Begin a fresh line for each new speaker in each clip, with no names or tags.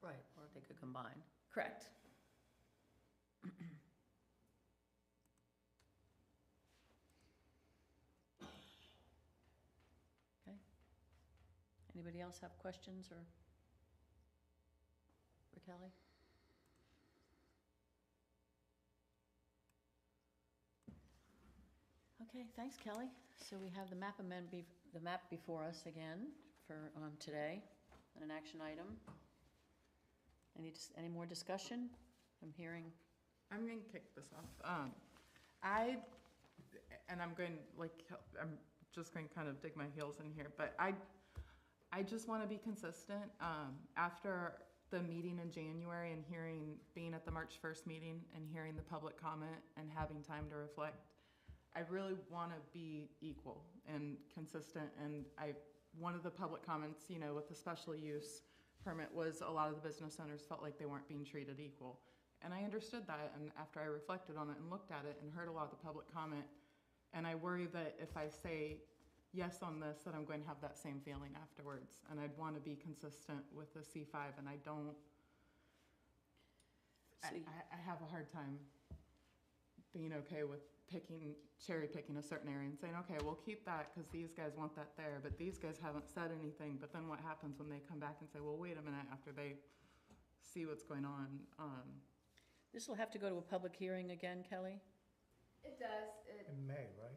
Right, or they could combine.
Correct.
Anybody else have questions or? For Kelly? Okay, thanks Kelly. So we have the map amend, bef- the map before us again for, um, today, and an action item. Any, dis- any more discussion? I'm hearing,
I'm gonna kick this off. Um, I, and I'm going, like, I'm just going to kind of dig my heels in here, but I, I just want to be consistent. Um, after the meeting in January and hearing, being at the March first meeting and hearing the public comment and having time to reflect, I really want to be equal and consistent. And I, one of the public comments, you know, with the special use permit was a lot of the business owners felt like they weren't being treated equal. And I understood that. And after I reflected on it and looked at it and heard a lot of the public comment, and I worry that if I say yes on this, that I'm going to have that same feeling afterwards. And I'd want to be consistent with the C5, and I don't. I,
So you-
I- I have a hard time being okay with picking, cherry picking a certain area and saying, okay, we'll keep that because these guys want that there, but these guys haven't said anything. But then what happens when they come back and say, well, wait a minute, after they see what's going on? Um,
this will have to go to a public hearing again, Kelly?
It does, it,
In May, right?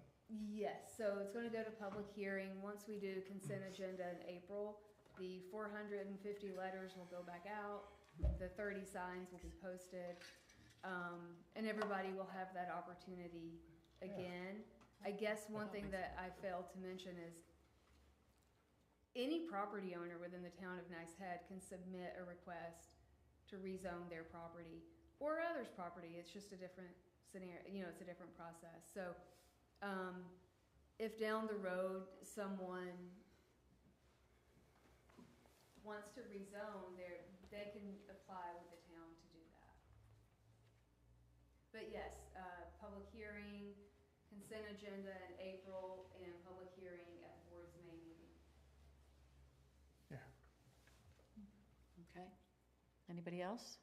yes, so it's gonna go to public hearing, once we do consent agenda in April, the four hundred and fifty letters will go back out, the thirty signs will be posted, um, and everybody will have that opportunity again. I guess one thing that I failed to mention is any property owner within the town of Nice Head can submit a request to rezone their property or others' property, it's just a different scenario, you know, it's a different process, so, um, if down the road someone wants to rezone, they they can apply with the town to do that. But yes, uh, public hearing, consent agenda in April, and public hearing at the board's May meeting.
Yeah.
Okay. Anybody else?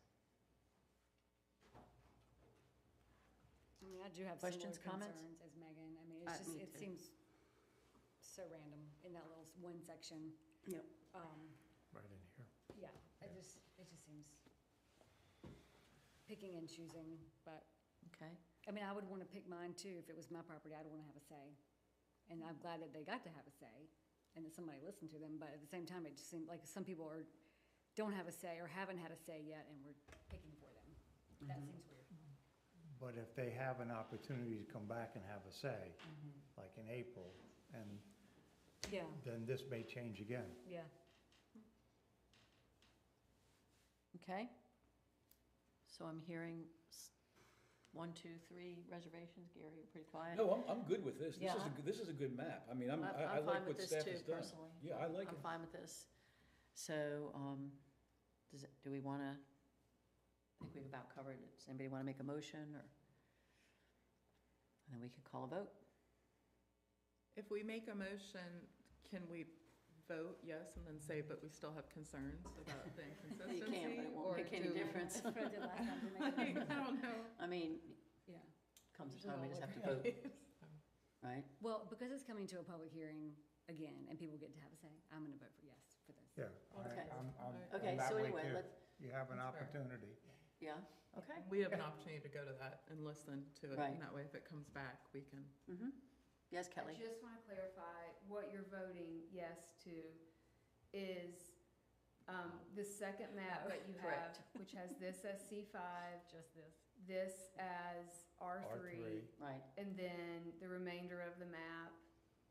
I mean, I do have similar
Questions, comments?
concerns as Megan. I mean,
Uh,
it's just,
me
it
too.
seems so random in that little s- one section.
Yep.
Um,
Right in here.
yeah,
Yeah.
it just, it just seems picking and choosing, but,
Okay.
I mean, I would wanna pick mine too. If it was my property, I'd wanna have a say. And I'm glad that they got to have a say and that somebody listened to them, but at the same time, it just seemed like some people are, don't have a say or haven't had a say yet and we're picking for them. That
Mm-hmm.
seems weird.
But if they have an opportunity to come back and have a say,
Mm-hmm.
like in April, and
Yeah,
then this may change again.
yeah.
Okay. So I'm hearing s- one, two, three reservations. Gary, you're pretty quiet.
No, I'm, I'm good with this. This is, a
Yeah.
good- this is a good map. I mean, I'm, I
I'm-
I
I'm fine
like
with
what
this
staff
too,
has done.
personally.
Yeah, I like
I'm
it.
fine with this. So, um, does, it- do we want to, I think we've about covered it. Does anybody want to make a motion or? And then we could call a vote.
If we make a motion, can we vote yes and then say, but we still have concerns about the inconsistency?
You can, but it won't
or
make any
do we-
difference.
That's what I did last time to
I
make it-
don't know.
I mean,
Yeah.
comes a
Just
time we
all
just have to
over.
vote, right?
Well, because it's coming to a public hearing again and people get to have a say, I'm gonna vote for yes for this.
Yeah. I-
Okay.
I'm- I'm- I'm
Okay,
that
so
way
anyway,
too.
let's,
You have an
That's fair.
opportunity.
yeah, okay.
We have an opportunity to go to that and listen to it,
Right.
and that way if it comes back, we can.
Mm-hmm. Yes,
I
Kelly?
just want to clarify, what you're voting yes to is um, the second map that you have,
Correct.
which has this as C5,
Just this.
this as R3,
Right,
and then the remainder of the map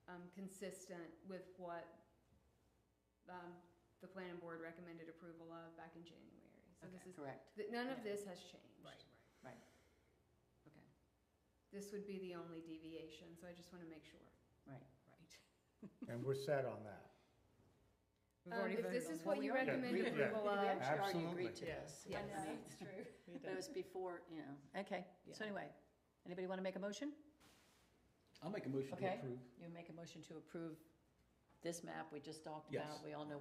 um, consistent with what um, the planning board recommended approval of back in January. So this is,
Okay.
correct,
th- none of
Yeah.
this has changed.
right.
Okay,
This would be the only deviation, so I just want to make sure.
right.
And we're set on that.
We've
Um,
already
if
voted
this
on
is
that.
what you
already
recommend
agreed. Yeah.
approval
We
of,
actually already agreed
Absolutely.
to
Yeah.
this.
Yes.
I know, it's true.
But it was before, you know, okay. So anyway, anybody want to make a motion?
I'll make a motion
Okay.
to approve.
You make a motion to approve this map we just talked
Yes.
about. We all know